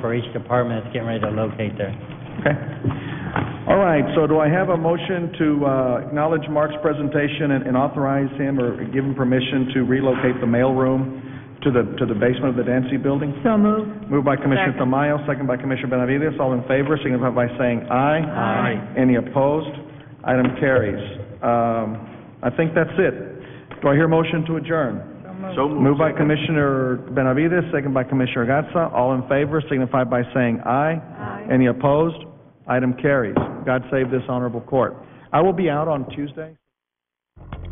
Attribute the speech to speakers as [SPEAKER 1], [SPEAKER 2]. [SPEAKER 1] for each department that's getting ready to locate there.
[SPEAKER 2] Okay. All right, so do I have a motion to uh, acknowledge Mark's presentation and- and authorize him or give him permission to relocate the mailroom to the, to the basement of the Dancy Building?
[SPEAKER 3] So moved.
[SPEAKER 2] Moved by Commissioner
[SPEAKER 3] Second.
[SPEAKER 2] Tamayo, second by Commissioner Benavides. All in favor, signify by saying aye.
[SPEAKER 3] Aye.
[SPEAKER 2] Any opposed? Item carries. Um, I think that's it. Do I hear a motion to adjourn?
[SPEAKER 4] So
[SPEAKER 2] Moved by Commissioner Benavides, second by Commissioner Gatsa. All in favor, signify by saying aye. Aye. Any opposed? Item carries. God save this honorable court. I will be out on Tuesday.